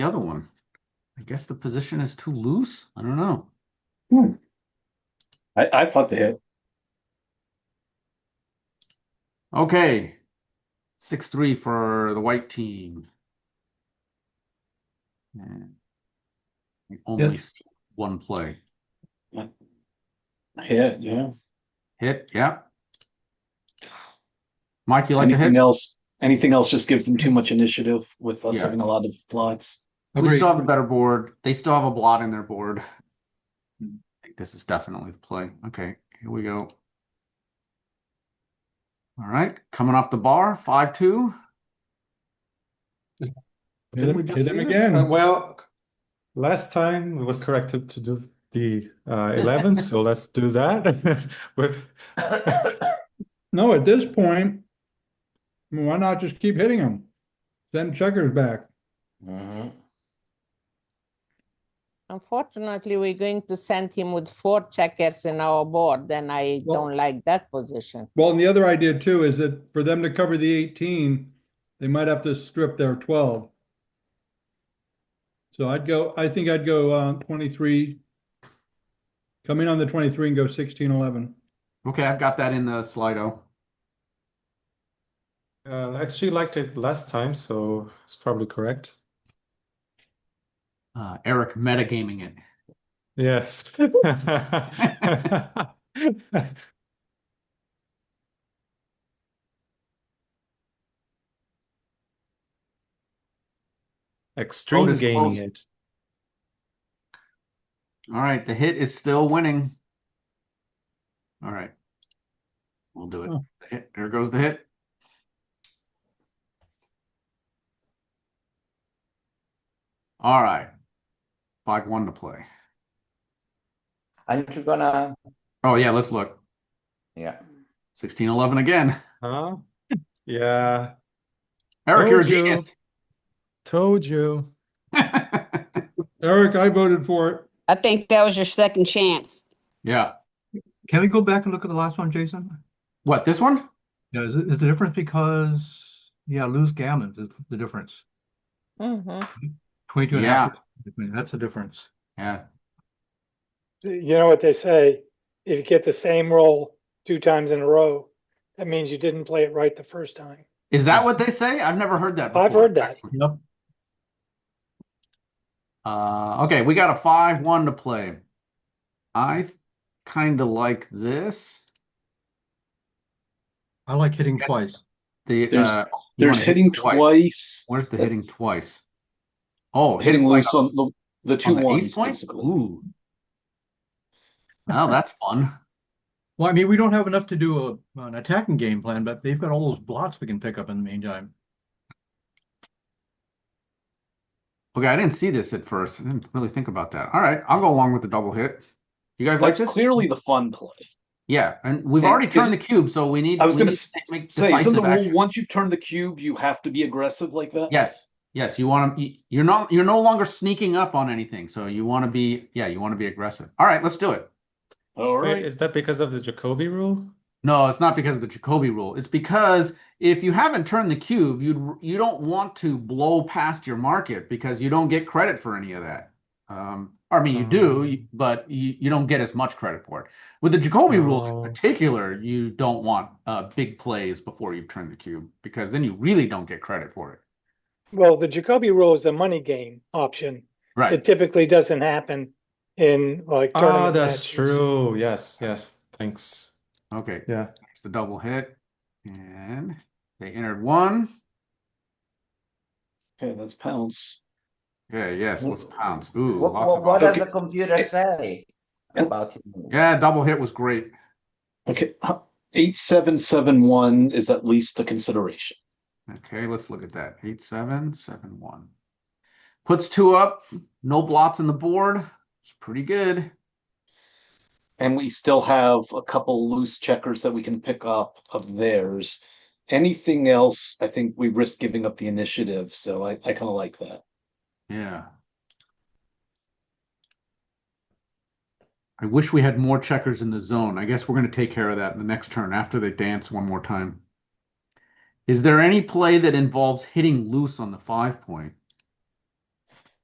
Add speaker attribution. Speaker 1: the other one. I guess the position is too loose. I don't know.
Speaker 2: I, I thought they had.
Speaker 1: Okay. Six three for the white team. And we only
Speaker 3: Yes.
Speaker 1: see one play.
Speaker 2: Hit, yeah.
Speaker 1: Hit, yeah. Mike, you like to hit?
Speaker 2: Anything else, anything else just gives them too much initiative with us
Speaker 1: Yeah.
Speaker 2: having a lot of plots.
Speaker 1: We
Speaker 3: Agreed.
Speaker 1: still have a better board. They still have a blot in their board. I
Speaker 2: Hmm.
Speaker 1: think this is definitely the play. Okay, here we go. All right, coming off the bar, five two.
Speaker 3: Hit
Speaker 1: we
Speaker 3: him,
Speaker 1: just
Speaker 3: hit
Speaker 1: see
Speaker 3: him
Speaker 1: this?
Speaker 3: again.
Speaker 4: Uh, Well, last time it was corrected to do the uh, 11, so let's do that with uh,
Speaker 5: No, at this point, I mean, why not just keep hitting them? Send checkers back.
Speaker 6: Unfortunately, we're going to send him with four checkers in our board, and I
Speaker 5: Well-
Speaker 6: don't like that position.
Speaker 5: Well, and the other idea too is that for them to cover the eighteen, they might have to strip their twelve. So I'd go, I think I'd go uh, twenty-three. Come in on the twenty-three and go sixteen, eleven.
Speaker 1: Okay, I've got that in the Slido.
Speaker 4: Uh, actually liked it last time, so it's probably correct.
Speaker 1: Uh, Eric metagaming it.
Speaker 4: Yes. Extreme
Speaker 1: Vote is
Speaker 4: gaming
Speaker 1: closed.
Speaker 4: it.
Speaker 1: All right, the hit is still winning. All right. We'll do it.
Speaker 5: Oh.
Speaker 1: The hit- There goes the hit. All right. Five one to play.
Speaker 7: Aren't you gonna?
Speaker 1: Oh yeah, let's look.
Speaker 7: Yeah.
Speaker 1: Sixteen eleven again.
Speaker 4: Huh? Yeah,
Speaker 1: Eric,
Speaker 8: Oh,
Speaker 1: you're a
Speaker 4: Told you.
Speaker 1: genius.
Speaker 4: told you.
Speaker 5: Eric, I voted for it.
Speaker 9: I think that was your second chance.
Speaker 1: yeah.
Speaker 3: Can we go back and look at the last one, Jason?
Speaker 1: What, this one?
Speaker 3: Yeah, is, it- is the difference because, yeah, lose gammons is the difference.
Speaker 6: Mhm.
Speaker 3: Twenty-two and a half. percent, That's the difference.
Speaker 1: Yeah.
Speaker 8: You know what they say, if you get the same roll two times in a row, that means you didn't play it right the first time.
Speaker 1: Is that what they say? I've never heard that before.
Speaker 8: I've heard that.
Speaker 1: actually.
Speaker 3: Yep.
Speaker 1: Uh, okay, we got a five one to play. I kind of like this.
Speaker 3: I like hitting
Speaker 1: Yes.
Speaker 3: twice.
Speaker 1: The
Speaker 2: There's-
Speaker 1: uh, you wanna
Speaker 2: There's
Speaker 1: hit
Speaker 2: hitting twice,
Speaker 1: Where's the
Speaker 2: That-
Speaker 1: hitting twice? Oh,
Speaker 2: hitting
Speaker 1: like
Speaker 2: loose on the, the
Speaker 1: on
Speaker 2: two
Speaker 1: the
Speaker 2: ones,
Speaker 1: ace point.
Speaker 2: basically.
Speaker 1: Ooh. Oh, that's fun.
Speaker 3: Well, I mean, we don't have enough to do a, an attacking game plan, but they've got all those blots we can pick up in the meantime.
Speaker 1: Okay, I didn't see this at first. I didn't really think about that. All right, I'll go along with the double hit. You guys like
Speaker 2: That's
Speaker 1: this?
Speaker 2: clearly the fun play.
Speaker 1: Yeah, and we've
Speaker 2: Hey,
Speaker 1: already
Speaker 2: is-
Speaker 1: turned the cube, so we need.
Speaker 2: I was
Speaker 1: we
Speaker 2: gonna
Speaker 1: need to
Speaker 2: s-
Speaker 1: make
Speaker 2: Say, isn't the
Speaker 1: decisive
Speaker 2: rule,
Speaker 1: action.
Speaker 2: once you've turned the cube, you have to be aggressive like that?
Speaker 1: Yes, yes, you want to, you're not, you're no longer sneaking up on anything, so you want to be, yeah, you want to be aggressive. All right, let's do it.
Speaker 2: All
Speaker 4: Wait,
Speaker 2: right.
Speaker 4: is that because of the Jacobi rule?
Speaker 1: No, it's not because of the Jacobi rule. It's because if you haven't turned the cube, you you don't want to blow past your market because you don't get credit for any of that. Um, I mean, you do,
Speaker 4: Oh.
Speaker 1: you- but you, you don't get as much credit for it. With the Jacobi rule in
Speaker 4: Oh.
Speaker 1: particular, you don't want uh, big plays before you've turned the cube because then you really don't get credit for it.
Speaker 8: Well, the Jacoby rule is a money game option.
Speaker 1: Right.
Speaker 8: It typically doesn't happen in like
Speaker 4: Ah,
Speaker 8: tournament
Speaker 4: that's
Speaker 8: matches.
Speaker 4: true. Yes, yes. Thanks.
Speaker 1: Okay.
Speaker 4: Yeah.
Speaker 1: It's the double hit. And they entered one.
Speaker 2: Okay, that's pounds.
Speaker 1: Okay, yes, let's
Speaker 2: Wh-
Speaker 1: pounce. Ooh,
Speaker 7: What,
Speaker 1: lots
Speaker 7: what,
Speaker 1: of
Speaker 7: what
Speaker 1: odds.
Speaker 7: does
Speaker 2: Okay.
Speaker 7: the computer say
Speaker 2: And-
Speaker 7: about him?
Speaker 1: Yeah, double hit was great.
Speaker 2: Okay, huh, eight, seven, seven, one is at least a consideration.
Speaker 1: Okay, let's look at that. Eight, seven, seven, one. Puts two up, no blots in the board. It's pretty good.
Speaker 2: And we still have a couple loose checkers that we can pick up of theirs. Anything else, I think we risk giving up the initiative, so I, I kind of like that.
Speaker 1: Yeah. I wish we had more checkers in the zone. I guess we're going to take care of that in the next turn after they dance one more time. Is there any play that involves hitting loose on the five point?